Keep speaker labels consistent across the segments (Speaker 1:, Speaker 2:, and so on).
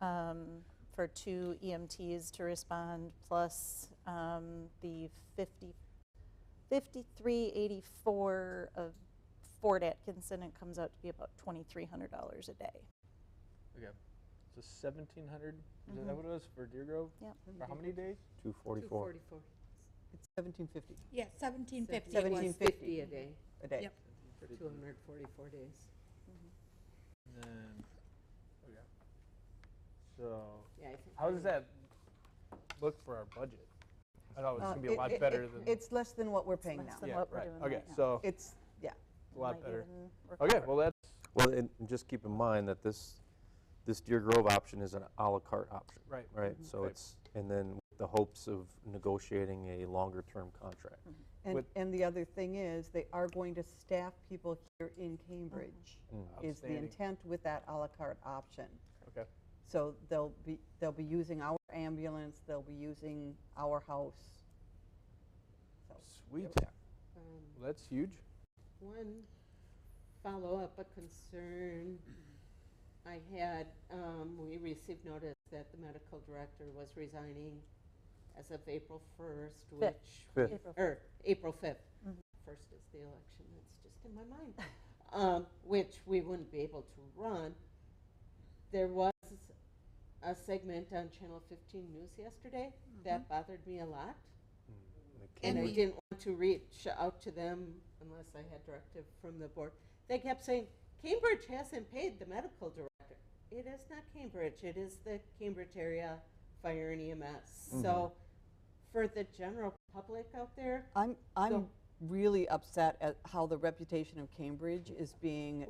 Speaker 1: um, for two EMTs to respond, plus um, the 50, 5384 of Fort Atkinson, it comes out to be about $2,300 a day.
Speaker 2: Okay. So 1700 Is
Speaker 3: Mm-hmm.
Speaker 2: that what it was for Deer Grove?
Speaker 1: Yep.
Speaker 2: For how many days?
Speaker 4: 244
Speaker 3: It's 1750
Speaker 5: Yeah, seventeen fifty it was.
Speaker 3: 1750.
Speaker 4: a day
Speaker 3: a day.
Speaker 5: Yep.
Speaker 4: for 244 days.
Speaker 2: And then, okay. So,
Speaker 4: Yeah, I think
Speaker 2: how does
Speaker 4: pretty-
Speaker 2: that look for our budget? I thought it was
Speaker 3: Uh,
Speaker 2: going to be a
Speaker 3: it-
Speaker 2: lot
Speaker 3: it-
Speaker 2: better
Speaker 3: it-
Speaker 2: than.
Speaker 3: It's less than what we're paying
Speaker 1: less
Speaker 3: now.
Speaker 1: than
Speaker 2: yeah,
Speaker 1: what we're
Speaker 2: right.
Speaker 1: doing
Speaker 2: okay,
Speaker 1: right now.
Speaker 2: so
Speaker 3: It's, yeah,
Speaker 2: a lot
Speaker 1: Might
Speaker 2: better.
Speaker 1: even
Speaker 2: Okay,
Speaker 1: recover.
Speaker 2: well, that's
Speaker 6: Well, and and just keep in mind that this, this Deer Grove option is an à la carte option,
Speaker 2: right.
Speaker 6: right? So
Speaker 2: Right.
Speaker 6: it's, and then the hopes of negotiating a longer-term contract.
Speaker 3: and,
Speaker 2: With-
Speaker 3: and the other thing is, they are going to staff people here in Cambridge, is the
Speaker 2: Outstanding.
Speaker 3: intent with that à la carte option.
Speaker 2: Okay.
Speaker 3: So they'll be, they'll be using our ambulance, they'll be using our house. So,
Speaker 2: Sweet.
Speaker 4: um,
Speaker 2: Well, that's huge.
Speaker 4: One follow-up, a concern I had, um, we received notice that the medical director was resigning as of April 1st, which.
Speaker 6: Fifth. Mm-hmm.
Speaker 1: April
Speaker 4: Or April 5th. First is the election, that's just in my mind, um, which we wouldn't be able to run. There was a segment on Channel 15 News yesterday that
Speaker 6: Mm-hmm.
Speaker 4: bothered me a lot. And I
Speaker 5: we-
Speaker 4: didn't want to reach out to them unless I had directive from the board. They kept saying, Cambridge hasn't paid the medical director. It is not Cambridge, it is the Cambridge area fire and EMS. So for the general public out there,
Speaker 3: I'm, I'm
Speaker 4: So-
Speaker 3: really upset at how the reputation of Cambridge is being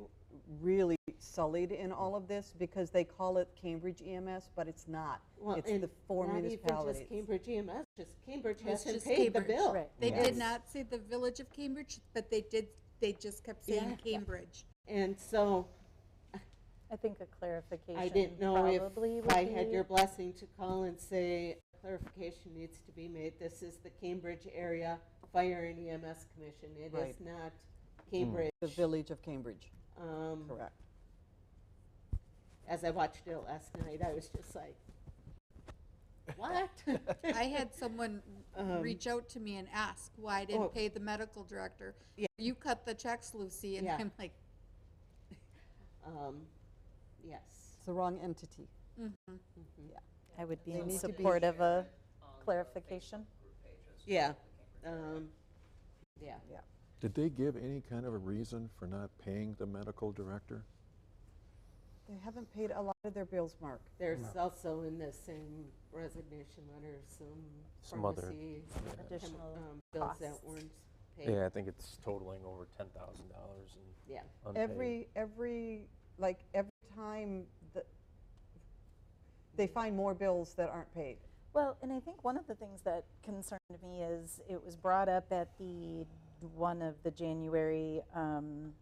Speaker 3: really sullied in all of this, because they call it Cambridge EMS, but it's not.
Speaker 4: well,
Speaker 3: It's
Speaker 4: and
Speaker 3: the four
Speaker 4: not
Speaker 3: municipalities.
Speaker 4: even just Cambridge EMS, just Cambridge
Speaker 5: That's
Speaker 4: hasn't
Speaker 5: just
Speaker 4: paid the
Speaker 5: Cambridge.
Speaker 4: bill.
Speaker 1: Right.
Speaker 5: They
Speaker 3: Yes.
Speaker 5: did not say the village of Cambridge, but they did, they just kept
Speaker 4: Yeah.
Speaker 5: saying Cambridge.
Speaker 4: And so
Speaker 1: I think a clarification
Speaker 4: I didn't know
Speaker 1: probably
Speaker 4: if
Speaker 1: would
Speaker 4: I had
Speaker 1: be-
Speaker 4: your blessing to call and say clarification needs to be made. This is the Cambridge area Fire and EMS Commission. It is
Speaker 3: Right.
Speaker 4: not Cambridge.
Speaker 3: The village of Cambridge,
Speaker 4: Um,
Speaker 3: correct.
Speaker 4: As I watched it last night, I was just like, what?
Speaker 5: I had someone reach out to me and ask why I
Speaker 4: Um, Oh.
Speaker 5: didn't pay the medical director. You cut the checks, Lucy, and
Speaker 4: Yeah.
Speaker 5: I'm like,
Speaker 4: Um, yes.
Speaker 3: It's the wrong entity.
Speaker 5: mm-hmm.
Speaker 1: I would be
Speaker 3: They
Speaker 1: in
Speaker 3: need to be-
Speaker 1: support of a clarification.
Speaker 4: Yeah. Um, yeah.
Speaker 7: Did they give any kind of a reason for not paying the medical director?
Speaker 3: They haven't paid a lot of their bills, Mark.
Speaker 4: There's also in the same resignation letter some,
Speaker 6: Some other-
Speaker 4: pharmacy
Speaker 1: Additional
Speaker 4: um, bills
Speaker 1: costs.
Speaker 4: that weren't paid.
Speaker 6: Yeah, I think it's totaling over $10,000 in
Speaker 4: yeah.
Speaker 6: unpaid.
Speaker 3: Every, every, like, every time the, they find more bills that aren't paid.
Speaker 1: Well, and I think one of the things that concerned me is it was brought up at the one of the January um,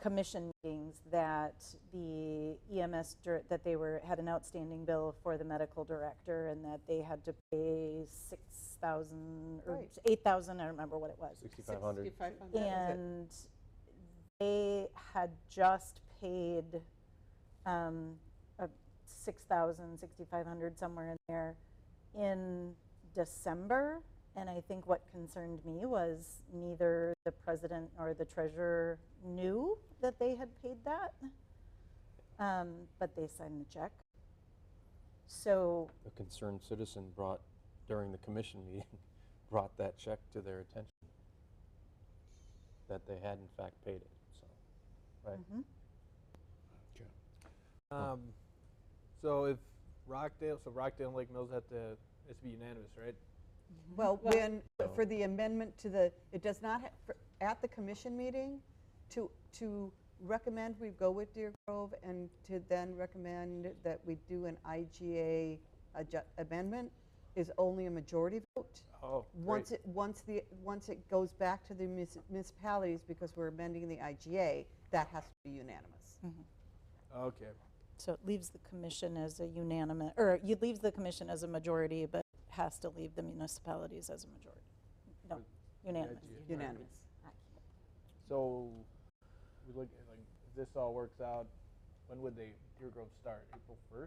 Speaker 1: commission meetings that the EMS dir- that they were had an outstanding bill for the medical director and that they had to pay six thousand or
Speaker 3: Right.
Speaker 1: eight thousand. I don't remember what it was.
Speaker 6: 6,500.
Speaker 4: 6,500.
Speaker 1: and they had just paid um, a 6,000, 6,500, somewhere in there in December. And I think what concerned me was neither the president or the treasurer knew that they had paid that, um, but they signed the check. So
Speaker 6: A concerned citizen brought, during the commission meeting, brought that check to their attention, that they had in fact paid it, so, right?
Speaker 2: Um, so if Rockdale, so Rockdale and Lake Mills have to, it has to be unanimous, right?
Speaker 3: Well, when, for the amendment to the, it does not, ha- for- at the commission meeting, to, to recommend we go with Deer Grove and to then recommend that we do an IGA adju- amendment is only a majority vote.
Speaker 2: Oh,
Speaker 3: Once
Speaker 2: great.
Speaker 3: it, once the, once it goes back to the munis- municipalities, because we're amending the IGA, that has to be unanimous.
Speaker 2: Okay.
Speaker 1: So it leaves the commission as a unanimous, or you leaves the commission as a majority, but has to leave the municipalities as a majority. No, unanimous.
Speaker 2: Mm-hmm.
Speaker 3: Unanimous.
Speaker 2: So we look at, like if this all works out, when would they Deer Grove start? April first?